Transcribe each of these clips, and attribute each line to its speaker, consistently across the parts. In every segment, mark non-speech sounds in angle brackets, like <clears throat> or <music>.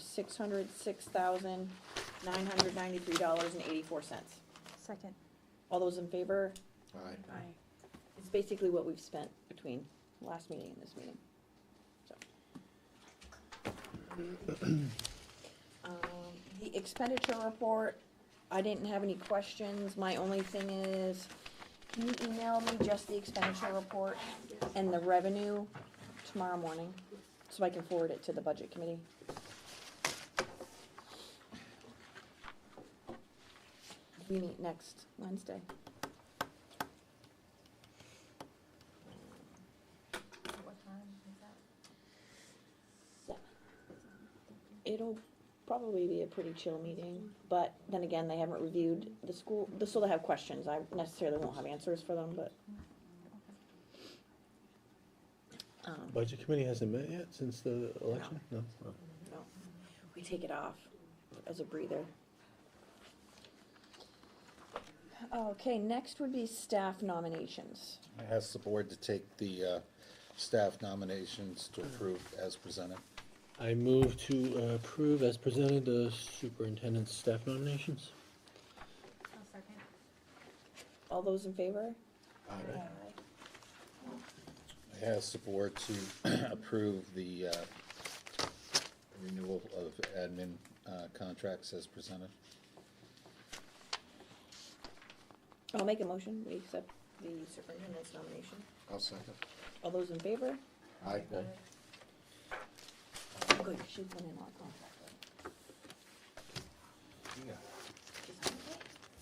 Speaker 1: six hundred six thousand nine hundred ninety-three dollars and eighty-four cents.
Speaker 2: Second.
Speaker 1: All those in favor?
Speaker 3: Aye.
Speaker 1: It's basically what we've spent between last meeting and this meeting, so. Um, The expenditure report, I didn't have any questions, my only thing is, can you email me just the expenditure report and the revenue tomorrow morning? So I can forward it to the budget committee? We meet next Wednesday. It'll probably be a pretty chill meeting, but then again, they haven't reviewed the school, they still have questions, I necessarily won't have answers for them, but. Um,
Speaker 4: Budget committee hasn't met yet since the election? No? Oh.
Speaker 1: no, we take it off as a breather. Okay, next would be staff nominations.
Speaker 3: I ask the board to take the uh, staff nominations to approve as presented.
Speaker 4: I move to uh, approve as presented the superintendent's staff nominations.
Speaker 1: All those in favor?
Speaker 3: I ask the board to <clears throat> approve the uh, renewal of admin uh, contracts as presented.
Speaker 1: I'll make a motion, we accept the superintendent's nomination.
Speaker 3: I'll second.
Speaker 1: All those in favor?
Speaker 3: Aye.
Speaker 1: Good, she's been in on contract.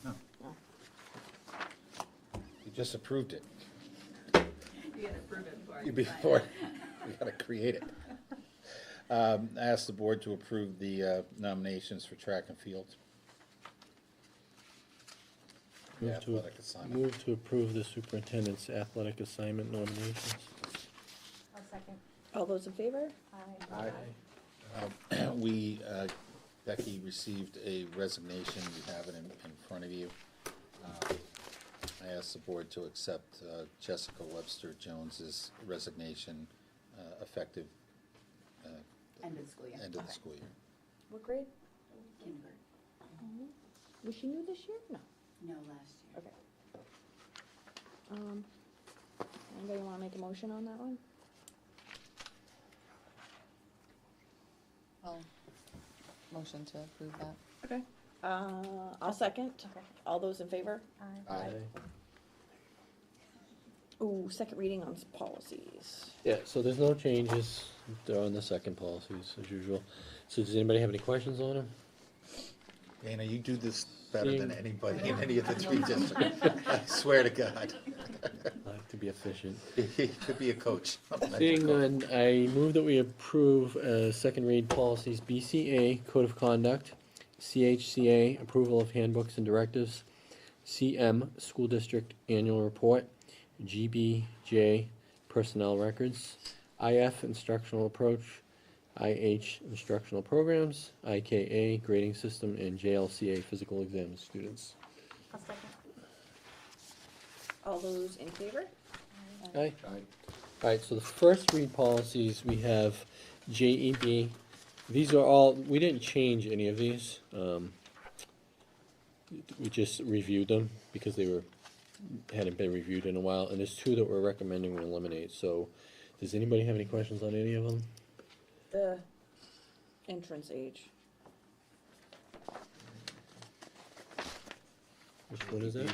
Speaker 3: No.
Speaker 1: No.
Speaker 3: You just approved it.
Speaker 5: You gotta prove it before.
Speaker 3: You
Speaker 5: can sign it.
Speaker 3: Before, we gotta create it. Um, I ask the board to approve the uh, nominations for track and field.
Speaker 4: Move
Speaker 3: Yeah,
Speaker 4: to-
Speaker 3: athletic assignment.
Speaker 4: Move to approve the superintendent's athletic assignment nominations.
Speaker 2: I'll second.
Speaker 1: All those in favor?
Speaker 2: Aye.
Speaker 3: Um, We, uh, Becky received a resignation, you have it in, in front of you. Um, I asked the board to accept uh, Jessica Webster Jones's resignation uh, effective uh,
Speaker 5: End of school, yeah.
Speaker 3: end of
Speaker 1: Okay.
Speaker 3: the school year.
Speaker 1: What grade? Mm-hmm.
Speaker 5: Kindergarten.
Speaker 1: Was she new this year? No.
Speaker 5: No, last year.
Speaker 1: Okay. Um, anybody wanna make a motion on that one?
Speaker 6: I'll motion to approve that.
Speaker 1: Okay. Uh, I'll second.
Speaker 2: Okay.
Speaker 1: All those in favor?
Speaker 2: Aye.
Speaker 3: Aye.
Speaker 1: Ooh, second reading on s- policies.
Speaker 4: Yeah, so there's no changes, they're on the second policies as usual. So does anybody have any questions on them?
Speaker 3: Dana, you do this better than
Speaker 4: Seeing-
Speaker 3: anybody in any of the three districts. I swear to God.
Speaker 4: I like to be efficient.
Speaker 3: You could be a coach.
Speaker 4: Seeing none, I move that we approve, uh, second read policies BCA, Code of Conduct, CHCA, Approval of Handbooks and Directives, CM, School District Annual Report, GBJ, Personnel Records, IF, Instructional Approach, IH, Instructional Programs, IKA, Grading System, and JLCA, Physical Exam of Students.
Speaker 2: I'll second.
Speaker 1: All those in favor?
Speaker 4: Aye. Alright, so the first three policies, we have JEB. These are all, we didn't change any of these. um, We just reviewed them because they were, hadn't been reviewed in a while, and there's two that we're recommending we eliminate, so does anybody have any questions on any of them?
Speaker 1: The entrance age.
Speaker 4: Which one is that?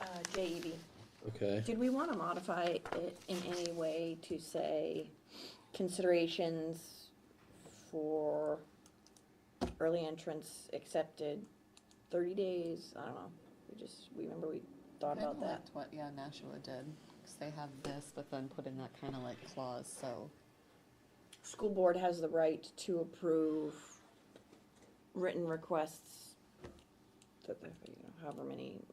Speaker 1: Uh, JEB.
Speaker 4: Okay,
Speaker 1: Did we wanna modify it in any way to say considerations for early entrance accepted thirty days? I don't know. We just, we remember we thought
Speaker 6: Kinda
Speaker 1: about that.
Speaker 6: liked What, yeah, Nashua did, 'cause they have this, but then put in that kind of like clause, so,
Speaker 1: School board has the right to approve written requests that, they- you know, however many,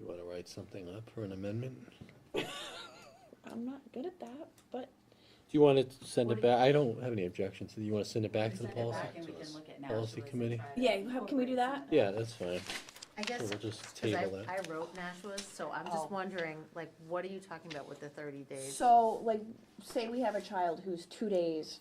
Speaker 4: you wanna write something up for an amendment?
Speaker 1: I'm not good at that, but
Speaker 4: Do you wanna send it back, I don't have any objections, do you wanna send it back to the
Speaker 5: Send it
Speaker 4: policy?
Speaker 5: back and we can look at now.
Speaker 4: policy committee?
Speaker 1: Yeah, how- can we do that?
Speaker 4: Yeah, that's fine,
Speaker 7: I guess,
Speaker 4: so we'll just
Speaker 7: because I,
Speaker 4: table that.
Speaker 7: I wrote Nashua's, so I'm
Speaker 6: Oh.
Speaker 7: just wondering, like, what are you talking about with the thirty days?
Speaker 1: So, like, say we have a child who's two days